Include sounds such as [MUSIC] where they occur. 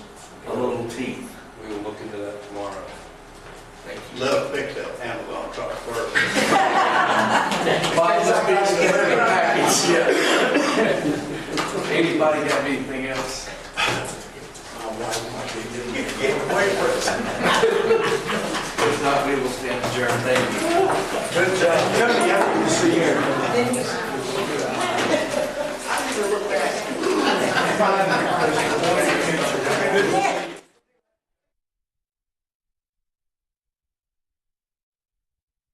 15th. We will look into that tomorrow. Thank you. Let us fix that Amazon truck first. Bob was being delivered package, yeah. Anybody got anything else? Oh, Get away from us. [LAUGHS] If not, we will stand adjourned. Thank you. Good job. Come here, see you.